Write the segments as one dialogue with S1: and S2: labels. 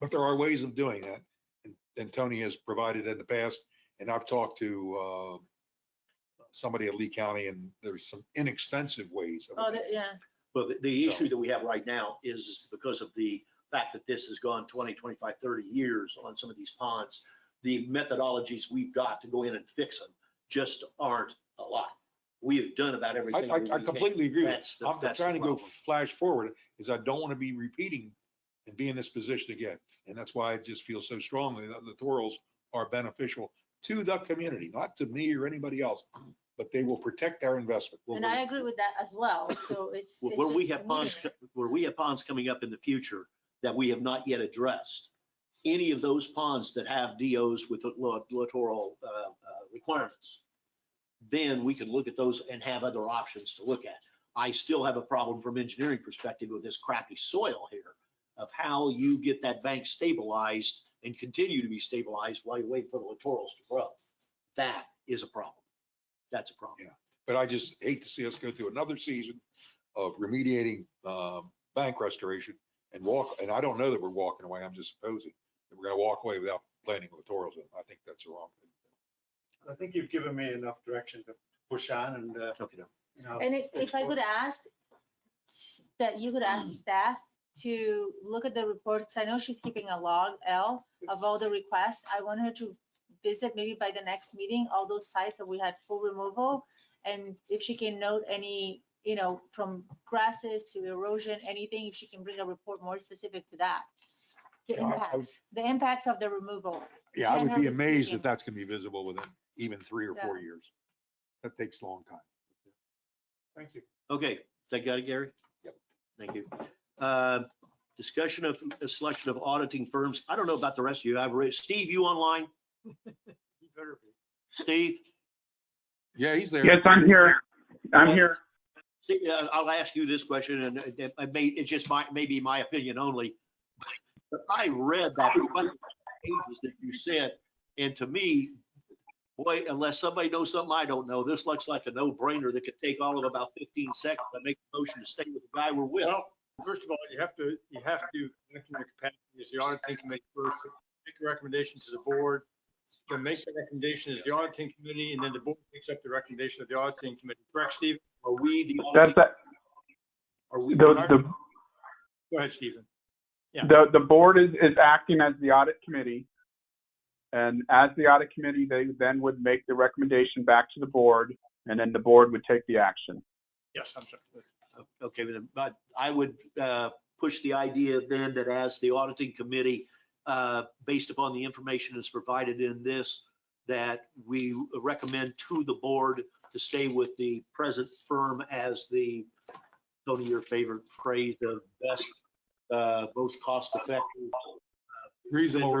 S1: But there are ways of doing that. And- And Tony has provided in the past, and I've talked to uh, somebody at Lee County, and there's some inexpensive ways. of
S2: Oh,
S1: it.
S2: that- yeah,
S3: But the, the
S1: So-
S3: issue that we have right now is, is because of the fact that this has gone 20, 25, 30 years on some of these ponds, the methodologies we've got to go in and fix them just aren't a lot. We have done about
S1: I,
S3: everything.
S1: I
S3: that
S1: I
S3: we can.
S1: completely agree with
S3: That's
S1: you.
S3: the-
S1: I'm I'm
S3: that's the
S1: trying to go
S3: problem.
S1: flash forward, is I don't want to be repeating and be in this position again. And that's why I just feel so strongly that littorals are beneficial to the community, not to me or anybody else, but they will protect our investment.
S3: Well,
S2: and I agree with that as well, so it's.
S3: Where
S2: it's
S3: where we
S2: just
S3: have ponds,
S2: community.
S3: co- where we have ponds coming up in the future that we have not yet addressed, any of those ponds that have DOs with lit- littoral uh, uh, requirements, then we can look at those and have other options to look at. I still have a problem from engineering perspective with this crappy soil here of how you get that bank stabilized and continue to be stabilized while you wait for the littorals to grow. That is a problem. That's a problem.
S1: But I just hate to see us go through another season of remediating um, bank restoration and walk, and I don't know that we're walking away, I'm just supposing that we're going to walk away without planning littorals. And I think that's the wrong. thing.
S4: I think you've given me enough direction to push on and, uh,
S3: Okay.
S4: you know.
S2: And if, if I could ask, that you could ask staff to look at the reports, I know she's keeping a log, L, of all the requests. I want her to visit maybe by the next meeting, all those sites that we had full removal. And if she can note any, you know, from grasses to erosion, anything, if she can bring a report more specific to that. The
S1: Yeah, I- I would-
S2: impacts, the impacts of the removal.
S1: Yeah, I would be
S2: Generally
S1: amazed
S2: speaking.
S1: if that's going to be visible within even three or
S2: Yeah.
S1: four years. That takes a long time.
S4: Thank you.
S3: Okay, that got it, Gary?
S1: Yep.
S3: Thank you. Uh, Discussion of a selection of auditing firms. I don't know about the rest of you. I've raised, Steve, you online? Steve?
S1: Yeah, he's there.
S5: Yes, I'm here. I'm here.
S3: Steve, uh, I'll ask you this question and it it may, it's just my, maybe my opinion only. But I read that pages that you sent and to me, boy, unless somebody knows something I don't know, this looks like a no-brainer that could take all of about 15 seconds to make a motion to stay with the guy we're with.
S4: Well, first of all, you have to, you have to, act in your capacity as the auditing committee first, make a recommendation to the board. Then make the recommendation as the auditing committee, and then the board picks up the recommendation of the auditing committee. Correct, Steve?
S3: Are we the
S5: That's,
S3: auditing?
S5: that-
S4: Are we?
S5: the,
S4: Go
S5: the,
S4: ahead, Stephen. Yeah.
S5: the, the board is, is acting as the audit committee. And as the audit committee, they then would make the recommendation back to the board and then the board would take the action.
S4: Yes, I'm sorry.
S3: Okay, then, but I would uh, push the idea then that as the auditing committee, uh, based upon the information that's provided in this, that we recommend to the board to stay with the present firm as the, Tony, your favorite phrase, the best, uh, most cost-effective.
S1: Reasonable,
S3: vendor,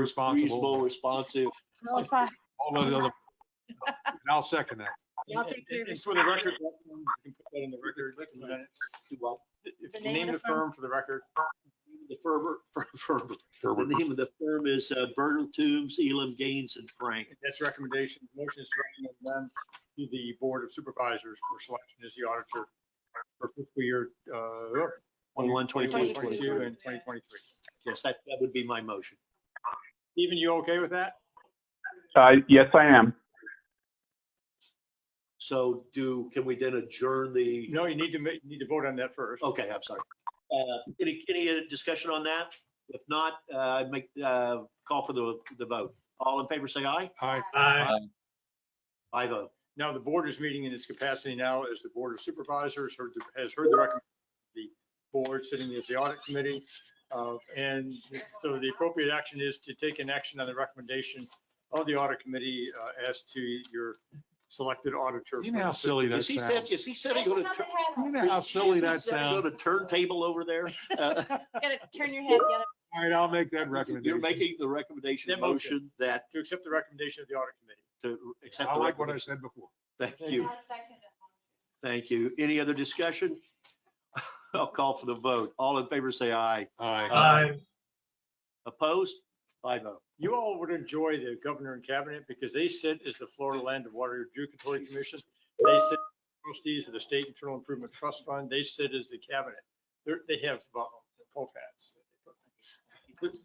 S1: responsible,
S3: Reasonable, responsive.
S2: No, if I-
S1: all of the other. And I'll second that.
S2: I'll take care of
S4: And
S2: it.
S4: For the record, you can put that in the record. in the minutes. If you name the firm for the record,
S3: The firm, firm, the name of the firm is uh, Bertle Toombs, Elam Gaines and Frank.
S4: that's recommendation, motion is to recommend them to the board of supervisors for selection as the auditor for fiscal year, uh,
S3: 21,
S4: 21,
S2: 22.
S4: 22, and twenty twenty-three.
S3: Yes, that, that would be my motion.
S4: Stephen, you okay with that?
S5: Uh, yes, I am.
S3: So do, can we then adjourn the,
S4: No, you need to make, you need to vote on that first.
S3: okay, I'm sorry. Uh, Any, any uh, discussion on that? If not, uh, I'd make, uh, call for the, the vote. All in favor, say aye.
S1: Hi,
S3: I vote.
S4: Now, the board is meeting in its capacity now as the board of supervisors, heard the- has heard the recommendation, the board sitting as the audit committee. uh, And so the appropriate action is to take an action on the recommendation of the audit committee uh, as to your selected auditor.
S1: you know how silly that
S3: Is he, set-
S1: sounds?
S3: is he setting on a, tur-
S1: You know how silly that
S3: is he setting
S1: sounds?
S3: On a turntable over there? Uh,
S2: Gotta turn your head, gotta
S1: All right, I'll make that
S3: You're
S1: recommendation.
S3: making the recommendation
S4: That motion.
S3: motion that
S4: To accept the recommendation of the audit committee.
S3: to accept.
S1: I
S3: the
S1: like what I
S3: recommendation.
S1: said before.
S3: Thank you.
S2: I'll second it.
S3: Thank you. Any other discussion? I'll call for the vote. All in favor, say aye.
S1: Aye.
S3: Opposed? Five oh.
S4: You all would enjoy the governor and cabinet because they sit as the Florida Land and Water Review Control Commission. They sit as trustees of the State Internal Improvement Trust Fund. They sit as the cabinet. They're, they have, uh, hats.